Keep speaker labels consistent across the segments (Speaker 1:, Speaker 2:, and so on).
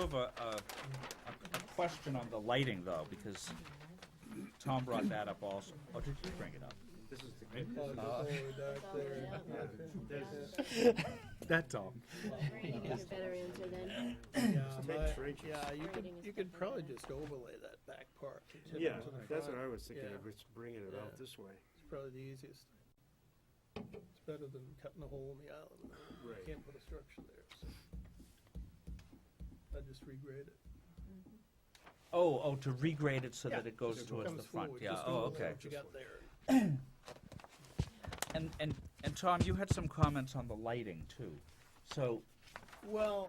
Speaker 1: Over a, a- a question on the lighting though, because Tom brought that up also. Oh, did you bring it up?
Speaker 2: This is the good.
Speaker 3: Oh,
Speaker 1: Uh,
Speaker 3: the forward dock there.
Speaker 1: That's all.
Speaker 4: Right, you get a better answer then.
Speaker 3: Yeah,
Speaker 2: Take
Speaker 3: my-
Speaker 2: trenches.
Speaker 3: Yeah, you could,
Speaker 4: Writing is
Speaker 3: you could
Speaker 4: different
Speaker 3: probably
Speaker 4: than
Speaker 3: just overlay that back part. to the-
Speaker 2: Yeah,
Speaker 3: to the
Speaker 2: that's what
Speaker 3: front.
Speaker 2: I was thinking
Speaker 3: Yeah.
Speaker 2: of, is bringing it
Speaker 3: Yeah.
Speaker 2: out this way.
Speaker 3: It's probably the easiest. It's better than cutting a hole in the island. You
Speaker 2: Right.
Speaker 3: can't put a structure there, so. I just regrade it.
Speaker 1: Oh, oh, to regrade it so
Speaker 3: Yeah,
Speaker 1: that it goes
Speaker 3: just
Speaker 1: towards
Speaker 3: comes
Speaker 1: the front,
Speaker 3: forward,
Speaker 1: yeah,
Speaker 3: just
Speaker 1: oh,
Speaker 3: overlay
Speaker 1: okay.
Speaker 3: what you got there.
Speaker 1: And, and, and Tom, you had some comments on the lighting too. So,
Speaker 3: Well,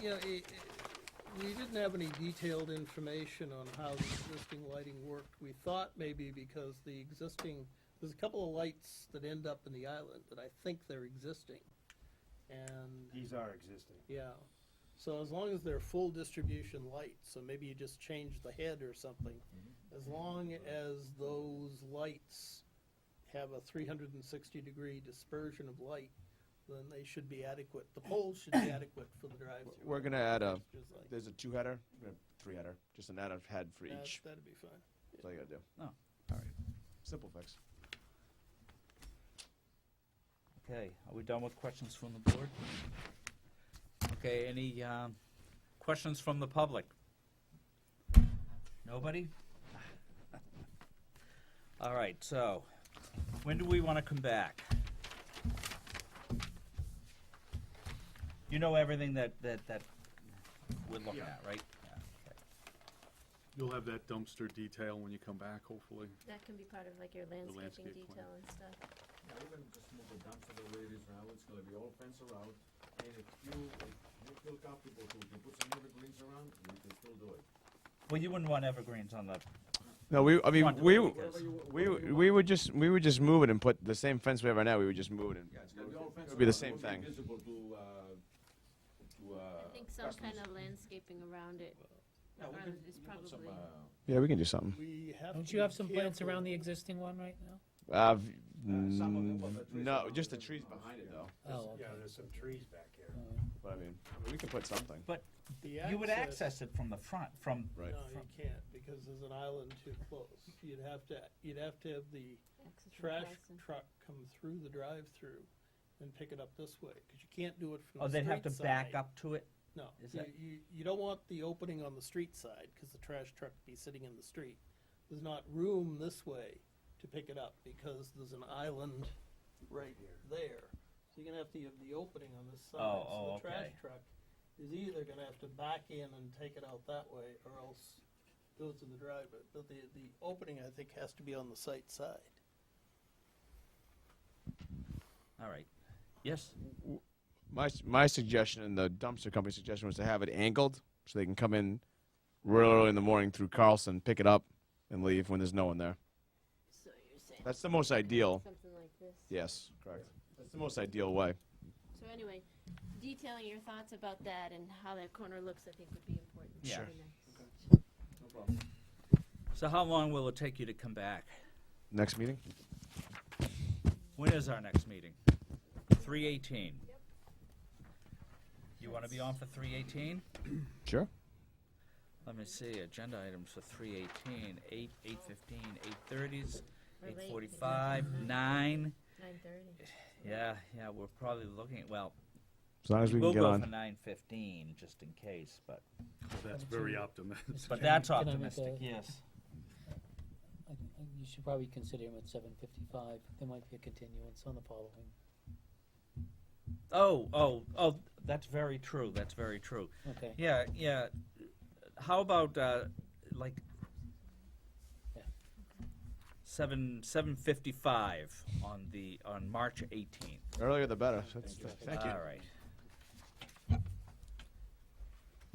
Speaker 3: you know, i- i- we didn't have any detailed information on how the existing lighting worked. We thought maybe because the existing, there's a couple of lights that end up in the island that I think they're existing. And
Speaker 2: These are existing.
Speaker 3: Yeah, so as long as they're full distribution lights, so maybe you just change the head or something. As long as those lights have a three hundred and sixty degree dispersion of light, then they should be adequate. The poles should be adequate for the drive-through.
Speaker 5: We're gonna add a,
Speaker 3: Just like-
Speaker 5: there's a two header, three header, just an add-on head for
Speaker 3: That-
Speaker 5: each.
Speaker 3: That'd be fine.
Speaker 5: That's all you gotta do.
Speaker 1: Oh.
Speaker 5: All right. Simple fix.
Speaker 1: okay, are we done with questions from the board? Okay, any, um, questions from the public? Nobody? All right, so, when do we wanna come back? You know everything that, that, that we're looking
Speaker 2: Yeah.
Speaker 1: at, right? Yeah, okay.
Speaker 6: You'll have that dumpster detail when you come back, hopefully.
Speaker 4: That can be part of like your landscaping
Speaker 6: landscape plan.
Speaker 4: detail and stuff.
Speaker 7: Yeah, we're gonna just move the dumpster the way it is now, it's gonna be all fenced around, and if you, if you feel comfortable to, to put some evergreens around, you can still do it.
Speaker 1: Well, you wouldn't want evergreens on the
Speaker 5: No, we, I mean,
Speaker 1: Front
Speaker 5: we,
Speaker 1: door,
Speaker 5: w-
Speaker 1: because-
Speaker 5: we, we would just, we would just move it and put the same fence we have right now, we would just move it and.
Speaker 7: Yeah, it's gonna be all fenced
Speaker 5: It'll
Speaker 7: around.
Speaker 5: be the same
Speaker 7: It won't
Speaker 5: thing.
Speaker 7: be Visible to, uh, to, uh.
Speaker 4: I think some kind
Speaker 7: customers.
Speaker 4: of landscaping around it.
Speaker 7: Yeah, we
Speaker 4: around
Speaker 7: can,
Speaker 4: it is
Speaker 7: we can put some,
Speaker 4: probably-
Speaker 7: uh,
Speaker 5: Yeah, we can do something.
Speaker 3: We have
Speaker 8: Don't
Speaker 3: to
Speaker 8: you
Speaker 3: be
Speaker 8: have some plants
Speaker 3: careful.
Speaker 8: around the existing one right now?
Speaker 5: Uh, v-
Speaker 7: Uh, some of it, well, the
Speaker 5: mm,
Speaker 7: trees
Speaker 5: no,
Speaker 7: are-
Speaker 5: just the trees behind it though,
Speaker 8: Oh, okay.
Speaker 2: Yeah, there's some trees back here.
Speaker 5: but I mean, we can put something.
Speaker 1: But
Speaker 3: The
Speaker 1: you would
Speaker 3: access-
Speaker 1: access it from the front, from,
Speaker 5: Right.
Speaker 3: No, you can't, because there's an island too close. You'd have to, you'd have to have the
Speaker 4: access to
Speaker 3: trash
Speaker 4: Carson.
Speaker 3: truck come through the drive-through and pick it up this way, because you can't do it from
Speaker 1: oh,
Speaker 3: the street
Speaker 1: they'd have to back
Speaker 3: side.
Speaker 1: up to it?
Speaker 3: No,
Speaker 1: Is
Speaker 3: you,
Speaker 1: that-
Speaker 3: you, you don't want the opening on the street side, because the trash truck would be sitting in the street. There's not room this way to pick it up, because there's an island right there. So you're gonna have to have the opening on this side,
Speaker 1: Oh,
Speaker 3: so
Speaker 1: oh,
Speaker 3: the trash
Speaker 1: okay.
Speaker 3: truck is either gonna have to back in and take it out that way, or else goes to the driveway. But the, the opening, I think, has to be on the site side.
Speaker 1: All right. Yes?
Speaker 5: My, s- my suggestion and the dumpster company's suggestion was to have it angled so they can come in real early in the morning through Carlson, pick it up and leave when there's no one there.
Speaker 4: So you're saying.
Speaker 5: That's the most ideal.
Speaker 4: Something like this.
Speaker 5: Yes, correct. That's the most ideal way.
Speaker 4: So anyway, detailing your thoughts about that and how that corner looks, I think would be important.
Speaker 1: Yeah. Sure.
Speaker 4: Very nice.
Speaker 7: No problem.
Speaker 1: So how long will it take you to come back?
Speaker 5: Next meeting?
Speaker 1: When is our next meeting? Three eighteen. You wanna be on for three eighteen?
Speaker 5: Sure.
Speaker 1: Let me see, agenda items for three eighteen, eight, eight fifteen, eight thirties,
Speaker 4: We're late.
Speaker 1: eight forty-five, nine.
Speaker 4: Nine thirty.
Speaker 1: Yeah, yeah, we're probably looking, at well,
Speaker 5: As long as we can
Speaker 1: we'll
Speaker 5: get
Speaker 1: go for
Speaker 5: on.
Speaker 1: nine fifteen, just in case, but,
Speaker 6: That's very optimistic.
Speaker 1: but that's
Speaker 8: Can I make
Speaker 1: optimistic,
Speaker 8: a-
Speaker 1: yes.
Speaker 8: I think- I think You should probably consider him at seven fifty-five. There might be a continuance on the following.
Speaker 1: Oh, oh, oh, that's very true, that's very true.
Speaker 8: Okay.
Speaker 1: Yeah, yeah. How about uh, like
Speaker 8: Yeah.
Speaker 1: seven seven fifty five on the on March eighteenth?
Speaker 5: Earlier the better. That's, thank you.
Speaker 1: All right.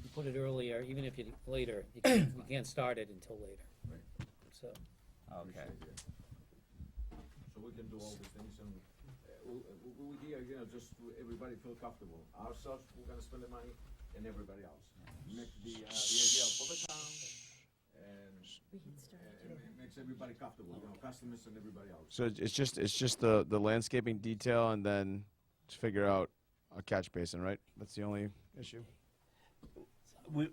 Speaker 8: You put it earlier, even if you, later, you can't, you can't start it until later.
Speaker 7: Right.
Speaker 8: So,
Speaker 1: Okay.
Speaker 7: Appreciate it. So we can do all the things and, uh, we, we, we here, you know, just to everybody feel comfortable. Ourselves, we're gonna spend the money and everybody else. Make the, uh, the idea for the town and,
Speaker 4: We can start.
Speaker 7: and it makes everybody comfortable, you know, customers and everybody else.
Speaker 5: So it- it's just it's just the the landscaping detail and then to figure out a catch basin, right? That's the only issue.
Speaker 1: we,